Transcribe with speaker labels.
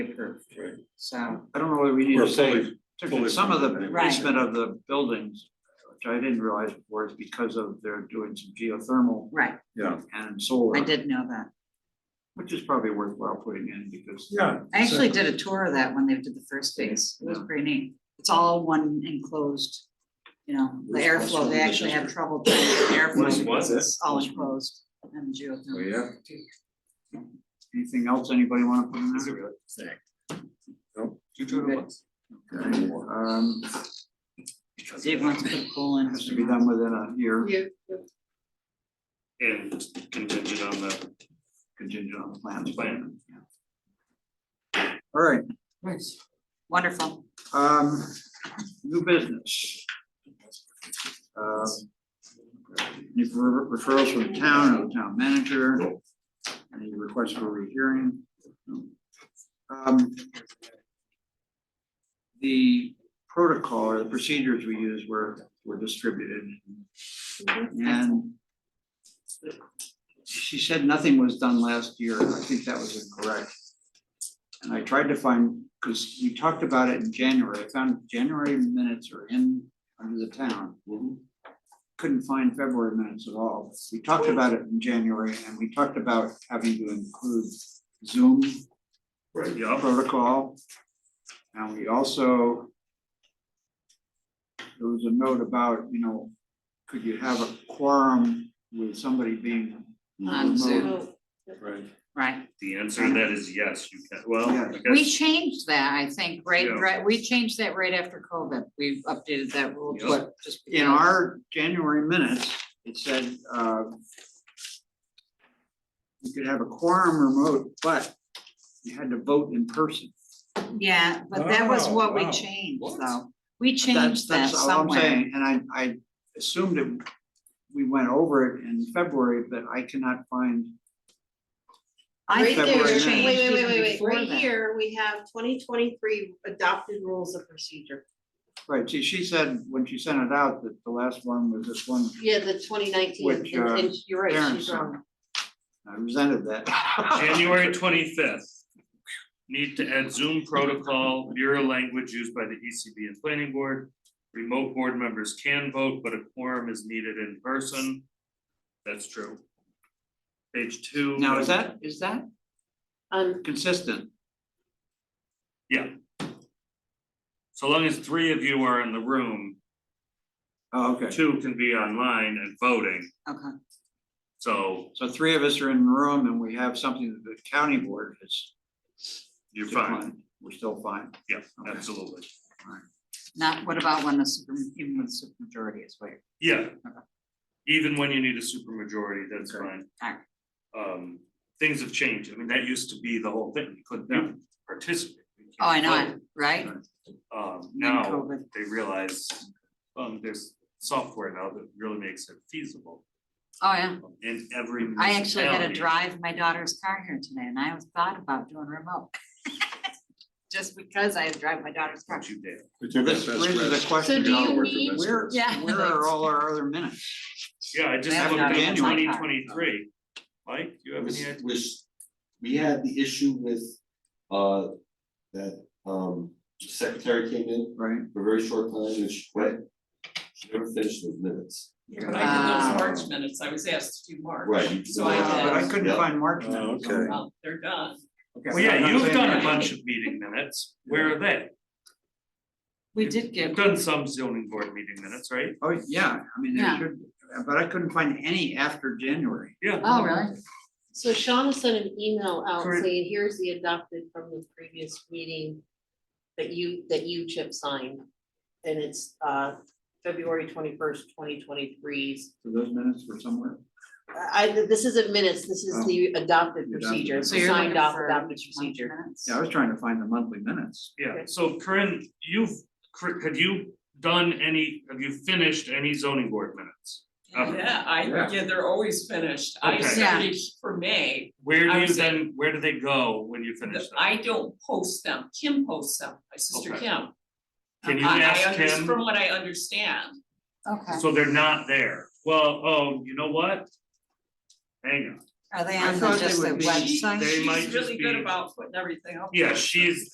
Speaker 1: acre sound.
Speaker 2: I don't know whether we need to
Speaker 3: Or
Speaker 2: say,
Speaker 3: fully-
Speaker 2: particularly some of the
Speaker 3: fully-
Speaker 4: Right.
Speaker 2: basement of the buildings, which I didn't realize before, is because of they're doing some geothermal
Speaker 4: Right,
Speaker 3: Yeah.
Speaker 2: and solar.
Speaker 4: I did know that.
Speaker 2: Which is probably worthwhile putting in because.
Speaker 3: Yeah.
Speaker 4: I actually did a tour of that when they did the first phase. It was pretty neat. It's all one enclosed, you know, the airflow, they actually have trouble doing the
Speaker 5: What
Speaker 4: airflow.
Speaker 5: was
Speaker 4: because
Speaker 5: it?
Speaker 4: It's all enclosed and geothermal.
Speaker 3: Oh, yeah.
Speaker 2: Anything else anybody wanna put in there?
Speaker 5: You do it once.
Speaker 2: Okay, Um,
Speaker 4: Dave wants to put a pool in.
Speaker 2: has to be done within a year
Speaker 5: And contingent on the
Speaker 2: contingent on the plans.
Speaker 5: Plan.
Speaker 2: Yeah. All right,
Speaker 4: Nice. Wonderful.
Speaker 2: Um, new business. Um, Any refer- referrals from town, or town manager, any requests for rehearing? Um, The protocol or the procedures we use were, were distributed. And she said nothing was done last year, I think that was incorrect. And I tried to find, because we talked about it in January, I found January minutes are in, under the town.
Speaker 5: Mm-hmm.
Speaker 2: Couldn't find February minutes at all. We talked about it in January and we talked about having to include Zoom
Speaker 5: Right, yeah,
Speaker 2: protocol. And we also. There was a note about, you know, could you have a quorum with somebody being.
Speaker 4: On Zoom,
Speaker 2: remote?
Speaker 3: Right.
Speaker 4: right.
Speaker 5: the answer to that is yes, you can, well, I
Speaker 2: Yes.
Speaker 4: We
Speaker 5: guess,
Speaker 4: changed that, I think, right,
Speaker 5: Yeah.
Speaker 4: right, we changed that right after COVID. We updated that rule
Speaker 5: Yeah.
Speaker 4: just, just.
Speaker 2: In
Speaker 4: because-
Speaker 2: our January minutes, it said, uh. You could have a quorum remote, but you had to vote in person.
Speaker 4: Yeah, but that was
Speaker 3: Wow,
Speaker 4: what we
Speaker 3: wow.
Speaker 4: changed,
Speaker 3: What?
Speaker 4: though. We
Speaker 2: That's
Speaker 4: changed that
Speaker 2: That's all I'm
Speaker 4: somewhere.
Speaker 2: saying, and I, I assumed it, we went over it in February, but I cannot find.
Speaker 4: I
Speaker 2: Right
Speaker 4: think it
Speaker 2: there.
Speaker 4: was
Speaker 2: Wait,
Speaker 4: changed
Speaker 6: Wait, wait, wait,
Speaker 4: even
Speaker 6: wait, wait,
Speaker 4: before
Speaker 6: right
Speaker 4: that.
Speaker 6: here, we have twenty twenty-three adopted rules of procedure.
Speaker 2: Right, she, she said, when she sent it out, that the last one was this one,
Speaker 6: Yeah, the twenty nineteen,
Speaker 2: Which, uh,
Speaker 6: and you're right,
Speaker 2: Karen's
Speaker 6: she's wrong.
Speaker 2: I resented that.
Speaker 5: January twenty-fifth. Need to add Zoom protocol, mirror language used by the ECB and planning board. Remote board members can vote, but a quorum is needed in person. That's true. Page two.
Speaker 2: Now, is that, is that
Speaker 6: Um,
Speaker 2: consistent?
Speaker 5: So long as three of you are in the room,
Speaker 2: Oh, okay,
Speaker 5: two can be online and voting,
Speaker 4: Okay,
Speaker 5: so
Speaker 2: so three of us are in the room and we have something that the county board has
Speaker 5: you're fine,
Speaker 2: declined, we're still fine.
Speaker 5: yeah,
Speaker 2: Okay.
Speaker 5: absolutely.
Speaker 4: not, what about when the super, even with supermajority is where,
Speaker 5: Yeah. Even when you need a supermajority, that's
Speaker 2: Okay.
Speaker 5: fine.
Speaker 4: Alright.
Speaker 5: Um, things have changed. I mean, that used to be the whole thing. You couldn't even participate. You
Speaker 4: oh, I know, it,
Speaker 5: couldn't
Speaker 4: right?
Speaker 5: vote. Um,
Speaker 4: Then
Speaker 5: now
Speaker 4: COVID.
Speaker 5: they realize, um, there's software now that really makes it feasible
Speaker 4: Oh, yeah,
Speaker 5: in every
Speaker 4: I actually had to
Speaker 5: municipality.
Speaker 4: drive my daughter's car here today, and I was thought about doing remote. Just because I drive my daughter's car.
Speaker 5: Don't you dare.
Speaker 3: We took
Speaker 2: This
Speaker 3: that
Speaker 2: raises
Speaker 3: best
Speaker 2: a
Speaker 3: rest.
Speaker 2: question,
Speaker 6: do
Speaker 3: We all
Speaker 6: you
Speaker 3: work the
Speaker 6: need-
Speaker 3: best
Speaker 2: where,
Speaker 3: rest.
Speaker 4: Yeah,
Speaker 2: where are all our other minutes?
Speaker 5: Yeah, I just
Speaker 4: Yeah,
Speaker 5: looked
Speaker 2: no,
Speaker 5: at
Speaker 2: that's my
Speaker 4: car.
Speaker 5: twenty twenty-three. Mike, you have any
Speaker 7: was,
Speaker 5: idea?
Speaker 7: was- we had the issue with, uh, that, um, secretary came in
Speaker 2: Right,
Speaker 7: for a very short time and she quit. She never finished those minutes.
Speaker 4: Uh,
Speaker 2: Uh,
Speaker 7: Um,
Speaker 8: But I did
Speaker 4: Wow.
Speaker 8: those March minutes, I was asked to do March.
Speaker 7: Right, you-
Speaker 8: So
Speaker 2: but
Speaker 8: I
Speaker 2: I
Speaker 8: had,
Speaker 2: couldn't
Speaker 7: Yeah.
Speaker 2: find March minutes.
Speaker 3: Oh, okay.
Speaker 8: well, they're done.
Speaker 2: Okay.
Speaker 5: Well, yeah,
Speaker 2: I'm
Speaker 5: you've
Speaker 2: saying
Speaker 5: done a
Speaker 2: that.
Speaker 5: bunch of meeting minutes. Where are they?
Speaker 4: We did get,
Speaker 5: You've done some zoning board meeting minutes, right?
Speaker 2: Oh, yeah, I mean, there
Speaker 4: Yeah.
Speaker 2: should, but I couldn't find any after January.
Speaker 5: Yeah.
Speaker 4: oh, really?
Speaker 6: so Shauna sent an email out
Speaker 5: Correct.
Speaker 6: saying, here's the adopted from the previous meeting that you, that you Chip signed, and it's, uh, February twenty-first, twenty twenty-three's.
Speaker 2: So those minutes were somewhere.
Speaker 6: I, this isn't minutes, this is
Speaker 2: Oh.
Speaker 6: the adopted
Speaker 2: The adopted.
Speaker 6: procedure,
Speaker 4: So you're
Speaker 6: signed
Speaker 4: looking
Speaker 6: off
Speaker 4: for
Speaker 6: adopted
Speaker 4: month
Speaker 6: procedure.
Speaker 4: minutes?
Speaker 2: Yeah, I was trying to find the monthly minutes.
Speaker 5: Yeah,
Speaker 6: Okay.
Speaker 5: so Corinne, you've, Cor- have you done any, have you finished any zoning board minutes? Okay.
Speaker 8: Yeah, I,
Speaker 2: Yeah.
Speaker 8: yeah, they're always finished.
Speaker 5: Oh.
Speaker 8: I
Speaker 5: Okay.
Speaker 4: Yeah.
Speaker 8: started for May,
Speaker 5: Where
Speaker 8: I
Speaker 5: do you
Speaker 8: was at-
Speaker 5: then, where do they go when you finish them?
Speaker 8: I don't post them, Kim posts them, my sister
Speaker 5: Okay.
Speaker 8: Kim.
Speaker 5: Can you
Speaker 8: I- I
Speaker 5: ask
Speaker 8: under-
Speaker 5: Kim?
Speaker 8: From what I understand,
Speaker 4: Okay,
Speaker 5: So they're not there. Well, oh, you know what? Hang on,
Speaker 4: Are they
Speaker 2: I
Speaker 4: on the-
Speaker 2: thought they
Speaker 4: just the
Speaker 2: would be-
Speaker 4: website?
Speaker 8: She-
Speaker 5: They might
Speaker 8: She's
Speaker 5: just
Speaker 8: really good
Speaker 5: be-
Speaker 8: about putting everything up.
Speaker 5: Yeah,
Speaker 8: there.
Speaker 5: she's